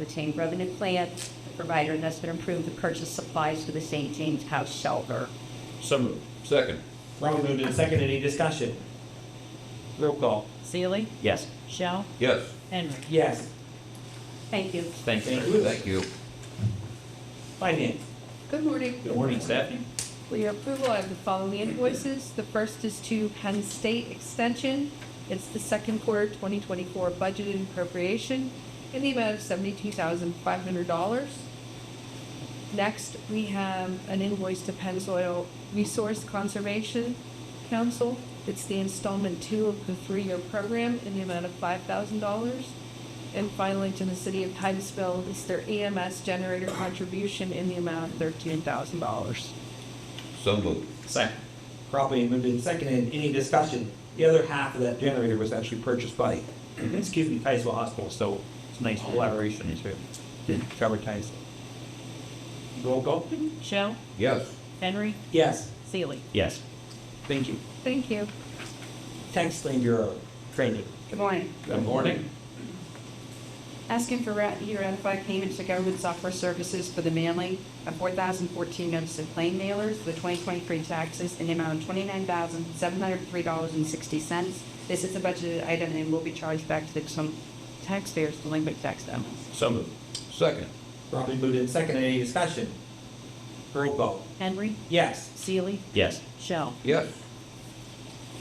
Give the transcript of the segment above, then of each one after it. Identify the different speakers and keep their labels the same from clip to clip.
Speaker 1: to obtain revenue plans, the provider has been approved to purchase supplies for the St. James House shelter.
Speaker 2: So moved. Second.
Speaker 3: Wrong moved and seconded. Any discussion? Roll call.
Speaker 4: Seely,
Speaker 3: Yes.
Speaker 4: Shell,
Speaker 2: Yes.
Speaker 4: Henry.
Speaker 3: Yes.
Speaker 1: Thank you.
Speaker 3: Thank you.
Speaker 2: Thank you.
Speaker 3: Finance.
Speaker 5: Good morning.
Speaker 3: Good morning, Stephanie.
Speaker 5: For your approval, I have the following invoices. The first is to Penn State Extension. It's the second quarter 2024 budgeted appropriation in the amount of $72,500. Next, we have an invoice to Pennzoil Resource Conservation Council. It's the installment two of the three-year program in the amount of $5,000. And finally, to the city of Titusville, it's their EMS generator contribution in the amount of $13,000.
Speaker 2: So moved.
Speaker 3: Second. Properly moved and seconded. Any discussion? The other half of that generator was actually purchased by, excuse me, Titusville Hospital, so it's a nice collaboration to cover Titusville. Roll call.
Speaker 4: Shell,
Speaker 2: Yes.
Speaker 4: Henry,
Speaker 3: Yes.
Speaker 4: Seely.
Speaker 3: Yes. Thank you.
Speaker 5: Thank you.
Speaker 3: Tax Lien Bureau training.
Speaker 6: Good morning.
Speaker 2: Good morning.
Speaker 6: Asking for rat- you to ratify payments to government software services for the mailing of 4,014 notice of claim mailers for the 2023 taxes in the amount of $29,703.60. This is a budgeted item and will be charged back to the some taxpayers delinquent tax amounts.
Speaker 3: So moved.
Speaker 2: Second.
Speaker 3: Properly moved and seconded. Any discussion? Roll call.
Speaker 4: Henry,
Speaker 3: Yes.
Speaker 4: Seely,
Speaker 3: Yes.
Speaker 4: Shell.
Speaker 2: Yes.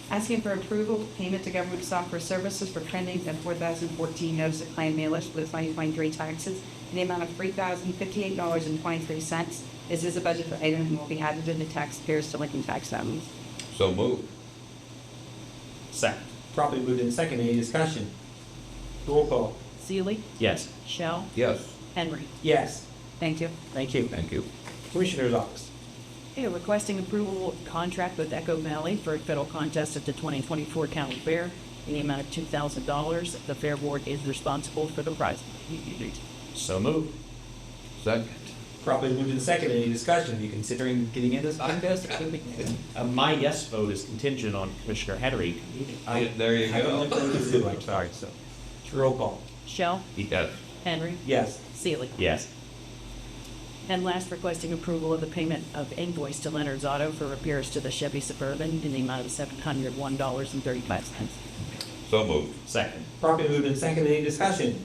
Speaker 6: Asking for approval, payment to government software services for trending and 4,014 notice of claim mailers for the 2023 taxes in the amount of $3,058.23. This is a budgeted item and will be added in the taxpayers' delinquent tax sums.
Speaker 2: So moved.
Speaker 3: Second. Properly moved and seconded. Any discussion? Roll call.
Speaker 4: Seely,
Speaker 3: Yes.
Speaker 4: Shell,
Speaker 2: Yes.
Speaker 4: Henry.
Speaker 3: Yes.
Speaker 6: Thank you.
Speaker 3: Thank you.
Speaker 2: Thank you.
Speaker 3: Commissioner's Office.
Speaker 4: Okay, requesting approval of contract with Echo Valley for a federal contest at the 2024 county fair in the amount of $2,000. The fair board is responsible for the prize.
Speaker 3: So moved.
Speaker 2: Second.
Speaker 3: Properly moved and seconded. Any discussion? Are you considering getting into this contest?
Speaker 7: Uh, My yes vote is contingent on Commissioner Henry.
Speaker 3: I-
Speaker 2: There you
Speaker 3: I don't
Speaker 2: go.
Speaker 3: know what to do. I'm sorry, so. Roll call.
Speaker 4: Shell,
Speaker 2: Yes.
Speaker 4: Henry,
Speaker 3: Yes.
Speaker 4: Seely.
Speaker 7: Yes.
Speaker 4: And last, requesting approval of the payment of invoice to Leonard's Auto for repairs to the Chevy Suburban in the amount of $701.35.
Speaker 2: So moved.
Speaker 7: Second.
Speaker 3: Properly moved and seconded. Any discussion?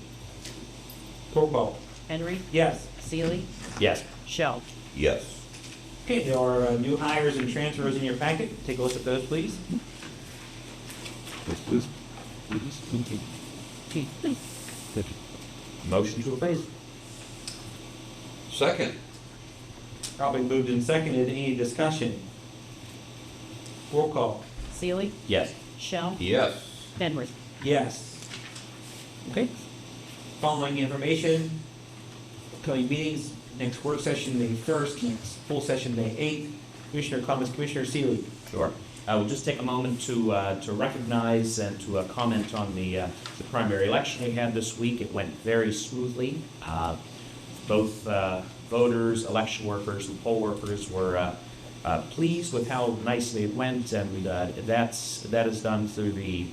Speaker 3: Roll call.
Speaker 4: Henry,
Speaker 3: Yes.
Speaker 4: Seely,
Speaker 7: Yes.
Speaker 4: Shell.
Speaker 2: Yes.
Speaker 3: Okay, there are uh, new hires and transfers in your packet. Take a look at those, please.
Speaker 2: Motion to approve. Second.
Speaker 3: Probably moved and seconded. Any discussion? Roll call.
Speaker 4: Seely,
Speaker 7: Yes.
Speaker 4: Shell,
Speaker 2: Yes.
Speaker 4: Henry.
Speaker 3: Yes. Okay. Following information, upcoming meetings, next work session, May first, next full session, May eighth. Commissioner comments, Commissioner Seeley.
Speaker 7: Sure. I will just take a moment to, uh, to recognize and to uh, comment on the, uh, the primary election we had this week. It went very smoothly. Uh, Both uh, voters, election workers, and poll workers were uh, uh, pleased with how nicely it went, and uh, that's, that is done through the,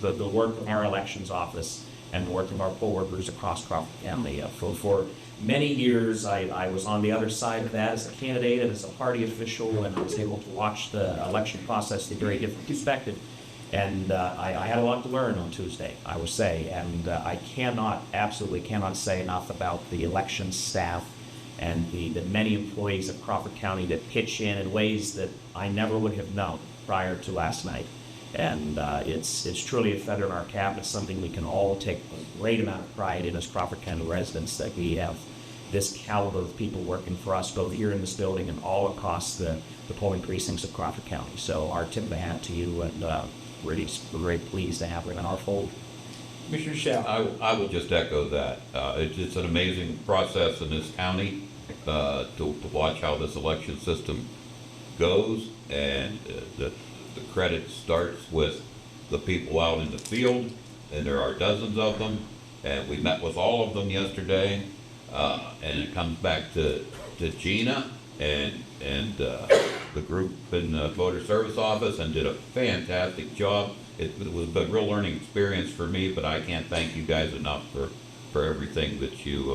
Speaker 7: the, the work of our elections office and the work of our poll workers across Crawford County. Uh, For, for many years, I, I was on the other side of that as a candidate and as a party official, and I was able to watch the election process in a very different perspective. And uh, I, I had a lot to learn on Tuesday, I will say, and uh, I cannot, absolutely cannot say enough about the election staff and the, the many employees of Crawford County that pitch in in ways that I never would have known prior to last night. And uh, it's, it's truly a feather in our cap. It's something we can all take a great amount of pride in as Crawford County residents that we have this caliber of people working for us, both here in this building and all across the, the polling precincts of Crawford County. So our tip of the hat to you, and uh, really, we're very pleased to have them in our fold.
Speaker 3: Commissioner Shell.
Speaker 2: I, I will just echo that. Uh, it's, it's an amazing process in this county, uh, to, to watch how this election system goes. And uh, the, the credit starts with the people out in the field, and there are dozens of them. And we met with all of them yesterday, uh, and it comes back to, to Gina and, and, uh, the group in the voter service office and did a fantastic job. It was a real learning experience for me, but I can't thank you guys enough for, for everything that you, uh,